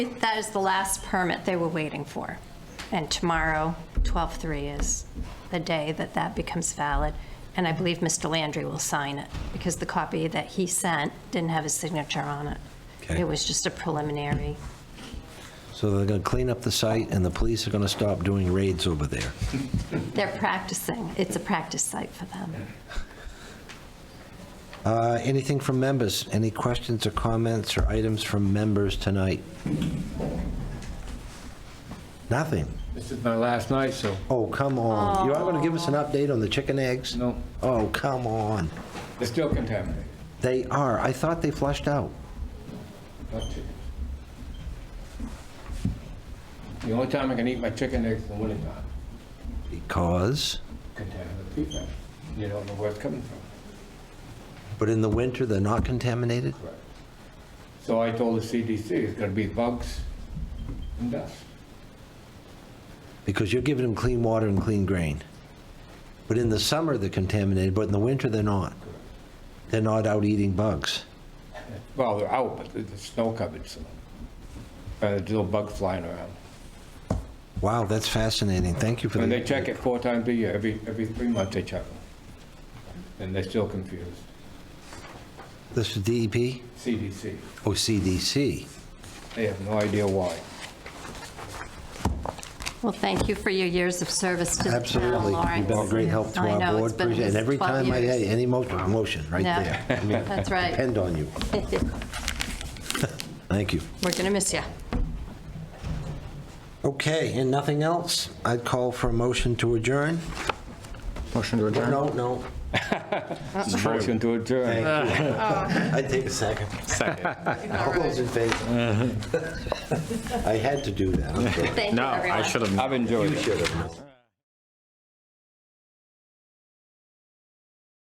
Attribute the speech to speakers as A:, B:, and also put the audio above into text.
A: That is the last permit they were waiting for. And tomorrow, 12/3 is the day that that becomes valid. And I believe Mr. Landry will sign it because the copy that he sent didn't have his signature on it.
B: Okay.
A: It was just a preliminary.
B: So they're going to clean up the site, and the police are going to stop doing raids over there.
A: They're practicing. It's a practice site for them.
B: Uh, Anything from members? Any questions or comments or items from members tonight? Nothing?
C: This is my last night, so,
B: Oh, come on. You are going to give us an update on the chicken eggs?
C: no,
B: Oh, come on.
C: they're still contaminated.
B: They are. I thought they flushed out.
C: Not chicken. The only time I can eat my chicken eggs is in the wintertime,
B: Because,
C: contaminated feedback. You don't know where it's coming from.
B: but in the winter, they're not contaminated?
C: Correct. So I told the CDC, it's gonna be bugs and dust.
B: Because you're giving them clean water and clean grain. But in the summer, they're contaminated, but in the winter, they're not. They're not out eating bugs.
C: Well, they're out, but there's snow covered, so. And there's little bugs flying around.
B: Wow, that's fascinating. Thank you for the.
C: And they check it four times a year, every, every three months they check them. And they're still confused.
B: This is DEP?
C: CDC,
B: Oh, CDC.
C: they have no idea why.
A: Well, thank you for your years of service to the town,
B: Absolutely.
A: Lawrence.
B: You've been a great help to
A: I
B: our
A: know,
B: board.
A: it's been
B: Appreciate it. And every
A: 12
B: time I
A: years.
B: had any motion, motion right
A: Yeah.
B: there. I mean,
A: That's right.
B: Depend on you. Thank you.
A: We're going to miss you.
B: Okay, and nothing else? I'd call for a motion to adjourn.
D: Motion to adjourn?
B: No, no.
C: Motion to adjourn.
B: I'd take a second.
D: Second.
B: All those in favor? I had to do that. I'm sorry.
A: Thank you,
D: No,
A: everyone.
D: I should have.
C: I've enjoyed it.
B: Should have.